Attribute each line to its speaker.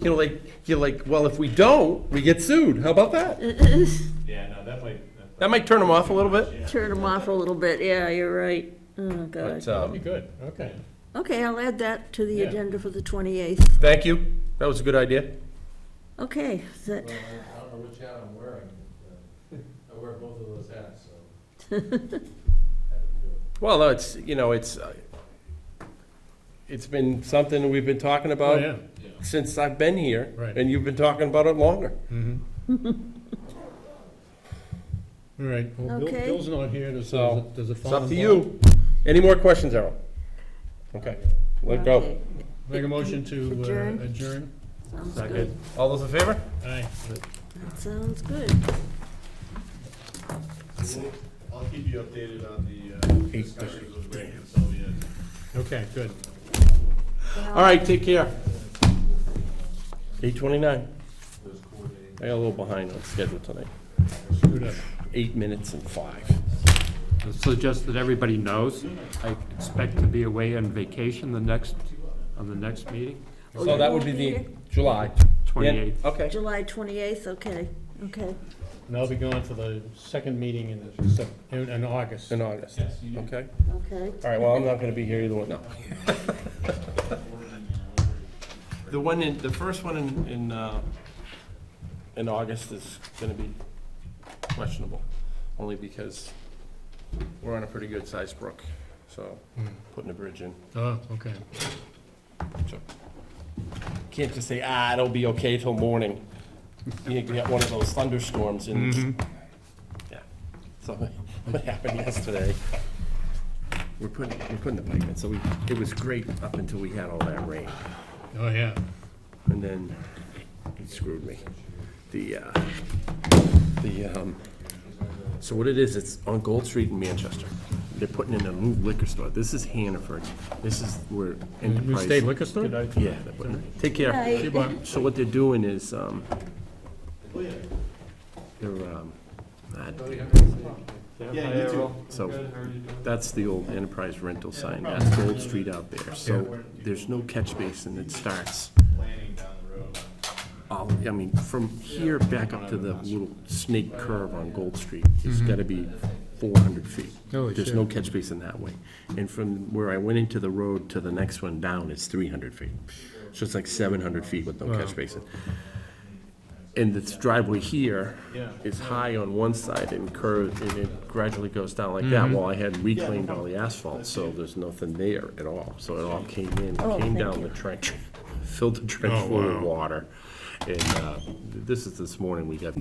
Speaker 1: you know, like, you're like, well, if we don't, we get sued. How about that?
Speaker 2: Yeah, no, that might,
Speaker 1: That might turn them off a little bit.
Speaker 3: Turn them off a little bit, yeah, you're right. Oh, God.
Speaker 1: But, um,
Speaker 2: that'd be good, okay.
Speaker 3: Okay, I'll add that to the
Speaker 2: Yeah.
Speaker 3: agenda for the 28th.
Speaker 1: thank you. That was a good idea.
Speaker 3: Okay, is that,
Speaker 4: Well, I I don't know which hat I'm wearing. but, uh, I wear both of those hats, so. Happy to do it.
Speaker 1: Well, no, it's, you know, it's, uh, it's been something we've been talking
Speaker 2: Oh,
Speaker 1: about
Speaker 2: yeah,
Speaker 1: since I've been here.
Speaker 2: Right.
Speaker 1: And you've been talking about it longer.
Speaker 2: all right, well, Bill-
Speaker 3: Okay.
Speaker 2: Bill's not here, does,
Speaker 1: So,
Speaker 2: does it- does it
Speaker 1: It's
Speaker 2: fall?
Speaker 1: up to
Speaker 2: in
Speaker 1: you. Any more questions, Errol? Okay, let go.
Speaker 3: okay,
Speaker 2: line? Make a motion to
Speaker 3: Adjourn.
Speaker 2: uh, adjourn?
Speaker 3: sounds good.
Speaker 1: All those in favor?
Speaker 2: Aye.
Speaker 3: That sounds good.
Speaker 5: I'll keep you updated on the uh, discussions with Ray and Sylvia.
Speaker 2: Okay, good.
Speaker 1: All right, take care. Eight twenty-nine. I got a little behind on schedule tonight.
Speaker 2: Screwed up.
Speaker 1: Eight minutes and five.
Speaker 6: So just that everybody knows, I expect to be away on vacation the next, on the next meeting,
Speaker 3: Oh,
Speaker 1: So that would be the July.
Speaker 6: twenty-eighth.
Speaker 1: Okay.
Speaker 3: July 28th, okay, okay.
Speaker 2: And I'll be going for the second meeting in, Sep- in in August.
Speaker 1: In August. Okay.
Speaker 3: Okay.
Speaker 1: All right, well, I'm not gonna be here either one, no. The one in, the first one in, in, uh, in August is gonna be questionable, only because we're on a pretty good sized brook, so putting a bridge in.
Speaker 2: Oh, okay.
Speaker 1: Can't just say, ah, it'll be okay till morning. You get one of those thunderstorms and,
Speaker 2: Mm-hmm.
Speaker 1: yeah. So what happened yesterday? We're putting, we're putting the pipe in, so we, it was great up until we had all that rain.
Speaker 2: Oh, yeah.
Speaker 1: And then it screwed me. The, uh, the, um, so what it is, it's on Gold Street in Manchester. They're putting in a new liquor store. This is Hannaford. This is where
Speaker 2: New
Speaker 1: Enterprise.
Speaker 2: state liquor store?
Speaker 1: Yeah. they're putting it- Take care.
Speaker 3: Bye.
Speaker 1: So what they're doing is, um, they're, um, I-
Speaker 5: Oh, Yeah, you too.
Speaker 1: so that's the old Enterprise rental sign. That's Gold Street out there. So there's no catch basin that starts
Speaker 5: Planning down the road.
Speaker 1: all, I mean, from here back up to the little snake curve on Gold Street, it's gotta be four hundred feet.
Speaker 2: Mm-hmm. Holy
Speaker 1: There's
Speaker 2: shit.
Speaker 1: no catch basin that way. And from where I went into the road to the next one down is three hundred feet. So it's like seven hundred feet with no catch basin. And this driveway here is high on one side and curved, and it gradually goes down like
Speaker 2: Mm-hmm.
Speaker 1: that. Well, I had reclaimed all the asphalt, so there's nothing there at all. So it all came in,
Speaker 3: Oh,
Speaker 1: came
Speaker 3: thank
Speaker 1: down the trench, filled the trench full of water. And uh, this is this morning, we got